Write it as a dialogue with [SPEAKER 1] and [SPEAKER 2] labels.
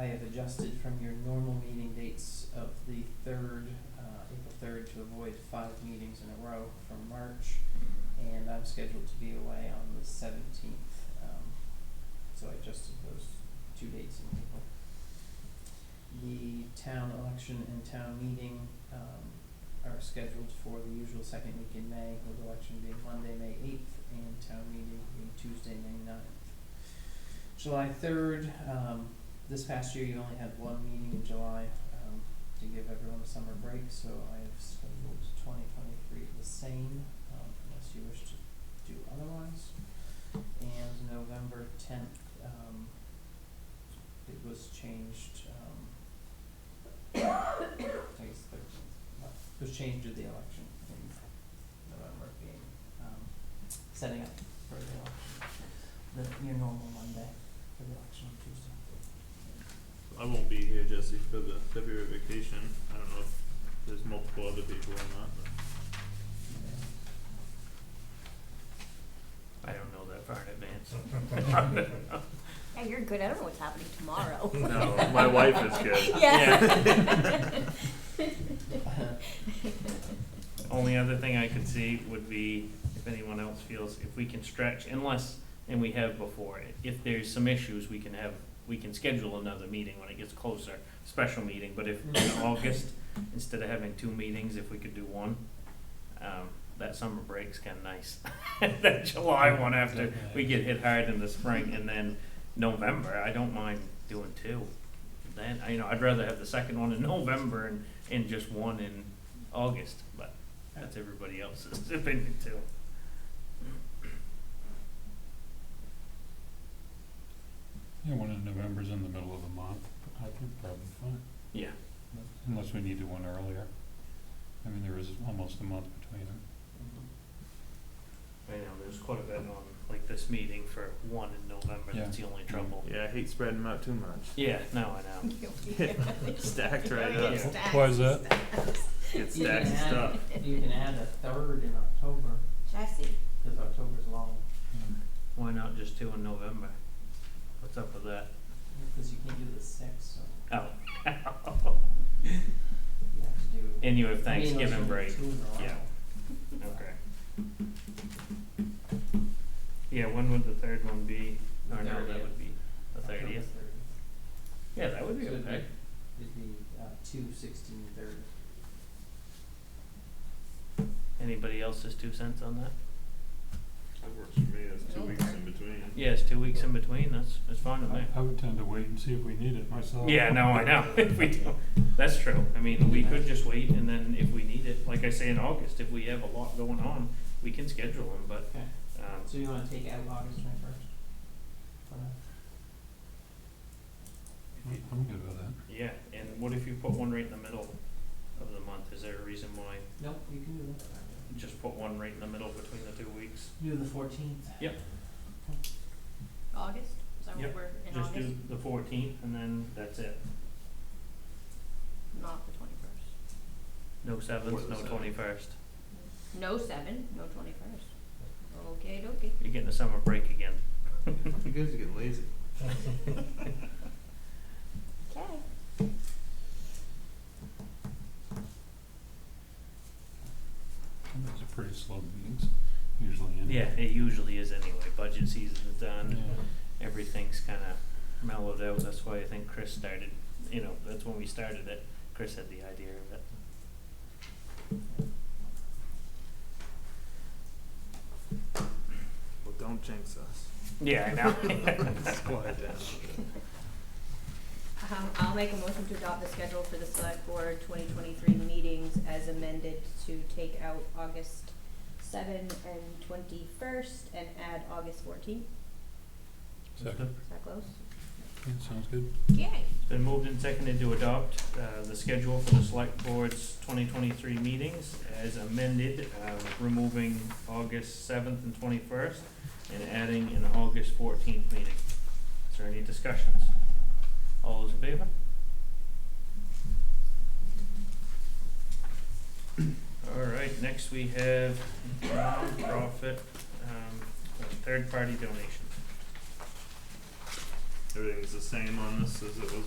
[SPEAKER 1] I have adjusted from your normal meeting dates of the third, uh, April third, to avoid five meetings in a row from March. And I'm scheduled to be away on the seventeenth, um, so I adjusted those two dates in April. The town election and town meeting, um, are scheduled for the usual second week in May, with election being Monday, May eighth, and town meeting being Tuesday, May 9th. July third, um, this past year, you only had one meeting in July, um, to give everyone a summer break, so I have scheduled twenty twenty-three the same, um, unless you wish to do otherwise. And November tenth, um, it was changed, um, I guess thirteenth, but it was changed to the election in November being, um, setting up for the election, the, your normal Monday for the election on Tuesday.
[SPEAKER 2] I won't be here, Jesse, for the February vacation. I don't know if there's multiple other people or not, but I don't know that far in advance.
[SPEAKER 3] Yeah, you're good. I don't know what's happening tomorrow.
[SPEAKER 2] No, my wife is good.
[SPEAKER 3] Yeah.
[SPEAKER 2] Only other thing I could see would be if anyone else feels, if we can stretch, unless, and we have before, if there's some issues, we can have, we can schedule another meeting when it gets closer, special meeting, but if in August, instead of having two meetings, if we could do one, um, that summer break's kinda nice. That July one after we get hit hard in the spring, and then November, I don't mind doing two. Then, I- you know, I'd rather have the second one in November and, and just one in August, but that's everybody else's opinion too.
[SPEAKER 4] Yeah, one in November's in the middle of the month, I think probably fine,
[SPEAKER 2] Yeah.
[SPEAKER 4] unless we needed one earlier. I mean, there is almost a month between them.
[SPEAKER 2] I know, there's quite a bit on, like this meeting for one in November, that's the only trouble.
[SPEAKER 5] Yeah, I hate spreading them out too much.
[SPEAKER 2] Yeah, no, I know.
[SPEAKER 5] Stacked right
[SPEAKER 2] Yeah.
[SPEAKER 5] up.
[SPEAKER 2] Wh-
[SPEAKER 3] Stacks,
[SPEAKER 4] why is that?
[SPEAKER 3] stacks.
[SPEAKER 5] Get
[SPEAKER 1] You can
[SPEAKER 5] stacked
[SPEAKER 1] add-
[SPEAKER 5] stuff.
[SPEAKER 1] You can add a third in October,
[SPEAKER 3] Jesse,
[SPEAKER 1] cause October's long,
[SPEAKER 2] Why not just two in November? What's up with that?
[SPEAKER 1] cause you can't do the sixth, so
[SPEAKER 2] Oh.
[SPEAKER 1] you have to do.
[SPEAKER 2] And you have
[SPEAKER 1] I mean, unless you
[SPEAKER 2] Thanksgiving
[SPEAKER 1] do
[SPEAKER 2] break.
[SPEAKER 1] two in a row.
[SPEAKER 2] Yeah. Okay. Yeah, when would the third one be?
[SPEAKER 1] The
[SPEAKER 2] Or no, that
[SPEAKER 1] 30th.
[SPEAKER 2] would be the
[SPEAKER 1] October
[SPEAKER 2] thirtieth. Yeah, that would be
[SPEAKER 1] So it'd
[SPEAKER 2] okay.
[SPEAKER 1] be, it'd be, uh, two sixteen thirty.
[SPEAKER 2] Anybody else's two cents on that?
[SPEAKER 5] That works for me, that's two weeks in between.
[SPEAKER 2] Yeah, it's two weeks in between, that's, that's fine with me.
[SPEAKER 4] I would tend to wait and see if we need it myself.
[SPEAKER 2] Yeah, no, I know, if we do, that's true, I mean, we could just wait, and then if we need it, like I say in August, if we have a lot going on, we can schedule them, but,
[SPEAKER 1] Okay,
[SPEAKER 2] um,
[SPEAKER 1] so you wanna take out August Uh, twenty first?
[SPEAKER 4] I'm I'm good with that.
[SPEAKER 2] yeah, and what if you put one right in the middle of the month, is there a reason why,
[SPEAKER 1] Nope, you can do that.
[SPEAKER 2] just put one right in the middle between the two weeks?
[SPEAKER 1] Do the fourteenth.
[SPEAKER 2] Yep.
[SPEAKER 3] August? Is that
[SPEAKER 2] Yep,
[SPEAKER 3] what we're in
[SPEAKER 2] Just
[SPEAKER 3] August?
[SPEAKER 2] do the fourteenth, and then that's it,
[SPEAKER 3] Not the 21st.
[SPEAKER 2] no
[SPEAKER 5] Or
[SPEAKER 2] seventh,
[SPEAKER 5] the
[SPEAKER 2] no
[SPEAKER 5] seventh.
[SPEAKER 2] twenty-first,
[SPEAKER 3] No 7, no 21st. Okay, okay.
[SPEAKER 2] you're getting a summer break again.
[SPEAKER 5] You guys are getting lazy.
[SPEAKER 3] Okay.
[SPEAKER 4] And Those are pretty slow meetings, usually
[SPEAKER 2] Yeah,
[SPEAKER 4] anyway.
[SPEAKER 2] it usually is anyway, budget season is done,
[SPEAKER 4] Yeah.
[SPEAKER 2] everything's kind of mellowed out. That's why I think Chris started, you know, that's when we started it. Chris had the idea of it.
[SPEAKER 5] Well, don't jinx us.
[SPEAKER 2] Yeah, I know.
[SPEAKER 5] Let's quiet down a bit.
[SPEAKER 3] Um, I'll make a motion to adopt the schedule for the select board twenty twenty-three meetings as amended to take out August seven and twenty-first and add August fourteenth.
[SPEAKER 4] Second,
[SPEAKER 3] Is that close?
[SPEAKER 4] yeah, sounds good.
[SPEAKER 3] Yay.
[SPEAKER 2] It's been moved and seconded to adopt uh, the schedule for the select board's 2023 meetings as amended, uh, with removing August 7th and 21st and adding an August 14th meeting. Is there any discussions? All those in favor? All right, next we have nonprofit, um, third-party donations.
[SPEAKER 5] Everything's the same on this as it was